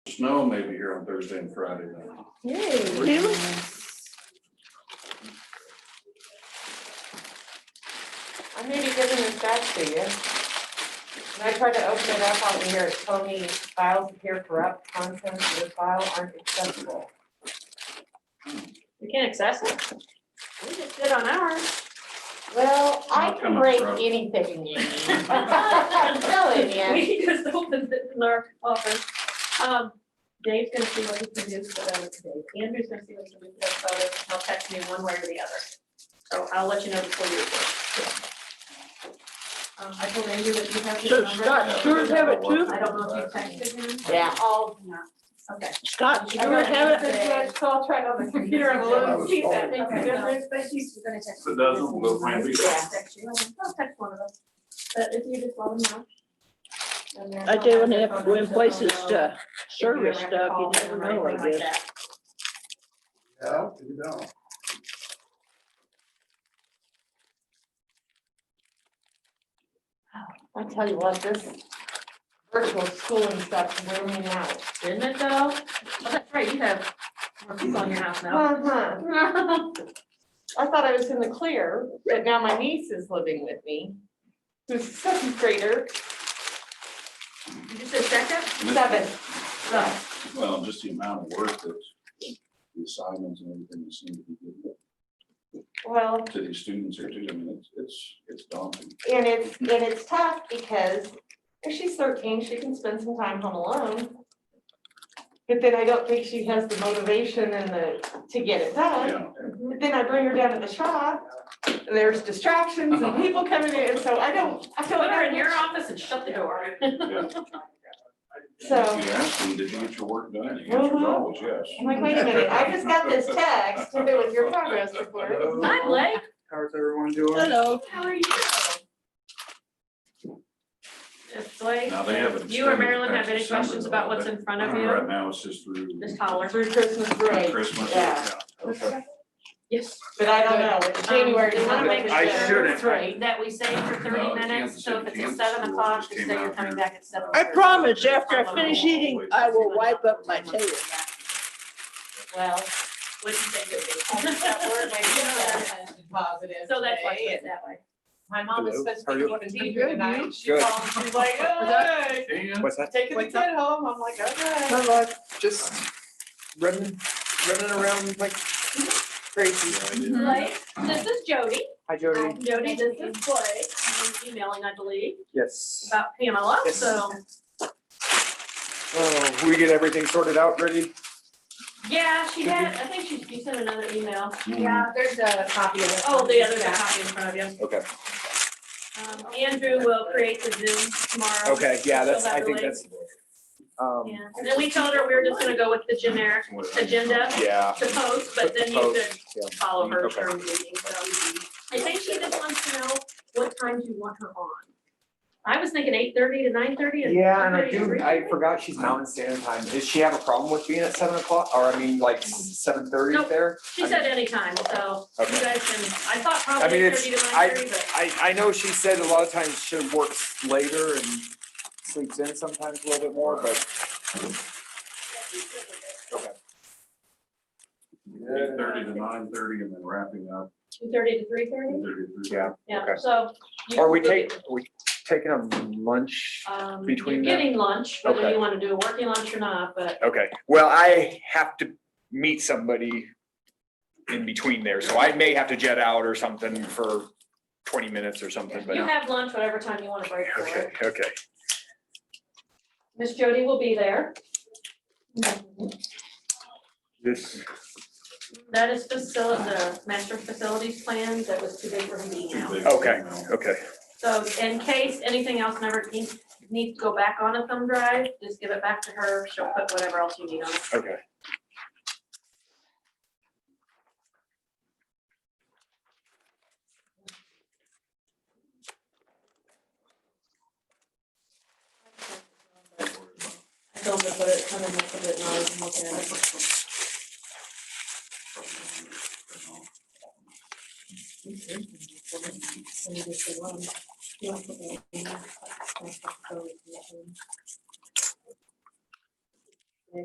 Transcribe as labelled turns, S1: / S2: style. S1: Snow may be here on Thursday and Friday now.
S2: Really?
S3: I may be giving this back to you. When I tried to open it up on here, it told me files appear corrupt, contents of the file aren't accessible.
S2: We can't access it? We just did on ours.
S3: Well, I
S1: Not
S3: can
S1: coming
S3: break
S1: corrupt.
S3: anything.
S2: Oh,
S3: I'm telling you.
S2: We just opened it in our office. Um, Dave's gonna see what he can do for those today. Andrew's gonna see what he can do for those photos. He'll text me one way or the other. So I'll let you know before you report. Um, I told Andrew that you have his
S4: So
S2: number.
S4: Scott Stewart have it too?
S2: I don't know if you texted him.
S3: Yeah.
S2: Oh, no. Okay.
S4: Scott Stewart have it?
S3: So I'll try it on the computer and
S1: I
S3: we'll
S1: was
S3: see if that
S1: told.
S3: makes a
S2: Okay.
S3: difference.
S5: But she's gonna text.
S1: If it doesn't, we'll find it.
S3: Yeah.
S2: Text you. I'll text one of us. But if you just let him know. and then
S4: I do,
S2: I'll
S4: when
S2: have
S4: they
S2: your
S4: have,
S2: phone
S4: when
S2: number,
S4: places
S2: so
S4: to
S2: you'll know if
S4: service
S2: you're ever
S4: stuff, you
S2: called in
S4: never
S2: or
S4: know, I
S2: anything like
S4: guess.
S2: that.
S6: Yeah, you know.
S3: I tell you what, this virtual schooling stuff's wearing me out.
S2: Didn't it though? Oh, that's right, you have more people in your house now.
S3: Uh-huh. I thought I was in the clear, but now my niece is living with me. Who's a seventh grader,
S2: You just said second?
S3: seven.
S2: No.
S1: Well, just the amount of work that the assignments and everything that seem to be given
S3: Well,
S1: to these students here too. I mean, it's, it's, it's daunting.
S3: and it's, and it's tough because if she's thirteen, she can spend some time home alone. But then I don't think she has the motivation and the, to get it done.
S1: Yeah.
S3: But then I bring her down to the shop, and there's distractions and people coming in, so I don't, I feel
S2: Put her in
S3: like,
S2: your office and shut the door.
S1: yeah.
S3: so.
S1: If You ask them, did you get your work done? The answer is
S3: Mhm.
S1: always yes.
S3: I'm like, wait a minute, I just got this text with your progress report.
S2: Hi, Blake.
S6: How's everyone doing?
S4: Hello.
S2: How are you? If Blake,
S1: Now they have it
S2: you or
S1: extended
S2: Marilyn
S1: back
S2: have any
S1: to December,
S2: questions
S1: though,
S2: about what's
S1: but
S2: in front of you,
S1: Right now, it's just through
S2: just holler.
S3: Through Christmas break,
S1: Christmas.
S3: Yeah.
S1: Okay.
S2: Yes.
S3: but I don't know, it's January.
S2: Um, we wanna make
S6: I
S2: sure
S6: shouldn't.
S2: it's right, That we save for
S1: No,
S2: thirty
S1: the
S2: minutes,
S1: Kansas
S2: so if
S1: City-
S2: it's at
S1: Kansas
S2: seven
S1: schools
S2: o'clock,
S1: just
S2: just
S1: came
S2: say you're
S1: out
S2: coming
S1: here.
S2: back at seven.
S4: I promise, after I finish eating, I will wipe up my tail.
S3: Well,
S2: What do you think
S5: I think that word
S2: it
S5: might
S2: is?
S5: be Positive.
S2: So that's why
S5: today,
S2: it's
S5: and
S2: that way.
S5: My mom was
S6: Hello,
S5: supposed
S6: how
S5: to
S6: are
S5: be
S6: you?
S5: going to be
S4: good,
S5: here tonight, and she
S6: Good.
S5: called, she was like, hey,
S1: And
S6: What's that?
S5: taking the
S6: What's that?
S5: kid home, I'm like, okay.
S6: My life, just running, running around like crazy.
S2: Blake, this is Jody.
S6: Hi Jody.
S2: Jody, this is Blake. You're Emailing, I believe,
S6: Yes.
S2: about Pamela,
S6: Yes.
S2: so,
S6: Oh, we get everything sorted out, ready?
S2: yeah, she had, I think she, you sent another email.
S5: Yeah, there's a copy of it.
S2: Oh, the other copy in front of you.
S6: Okay.
S2: Um, Andrew will create the Zoom tomorrow.
S6: Okay, yeah, that's, I think
S2: Fill that
S6: that's. Um,
S2: Yeah, and then we told her we were just gonna go with the generic agenda
S6: yeah,
S2: to post, but then you
S6: Post, yeah.
S2: could follow her
S6: Okay.
S2: during the meeting, so. I think she just wants to know what times you want her on. I was thinking eight thirty to nine thirty and.
S7: Yeah, and I
S2: 9:30 to
S7: do,
S2: 3:30.
S7: I forgot she's Mountain Standard Time. Does she have a problem with being at seven o'clock, or I mean, like seven thirty
S2: Nope.
S7: there?
S2: She said anytime, so you
S7: Okay.
S2: guys can, I thought
S7: I mean,
S2: probably
S7: it's-
S2: thirty to
S7: I-
S2: nine thirty, but
S7: I, I know she said a lot of times she works later and sleeps in sometimes a little bit more, but.
S1: Eight thirty to nine thirty and then wrapping up.
S2: two thirty to three thirty,
S1: 8:30 to-
S7: Yeah.
S2: yeah,
S7: Mm-hmm. Okay.
S2: so. you
S7: Are
S2: can
S7: we
S2: look at-
S7: taking, are we taking a lunch?
S2: Um, you're
S7: between the-
S2: getting lunch, whether
S7: Okay.
S2: you wanna do a working lunch or not, but
S7: Okay, well, I have to meet somebody in between there, so I may have to jet out or something for twenty minutes or something,
S2: you have lunch whatever time you wanna break for it.
S7: okay.
S2: Miss Jody will be there.
S7: This,
S2: That is facility, the master facilities plan that was too big for him to eat
S1: Too
S2: now.
S1: big.
S7: Okay. okay.
S2: So in case anything else never needs, needs to go back on a thumb drive, just give it back to her. She'll put whatever else you need on it.
S7: Okay.
S2: I told her to put it, kind of mix it and I was looking at it.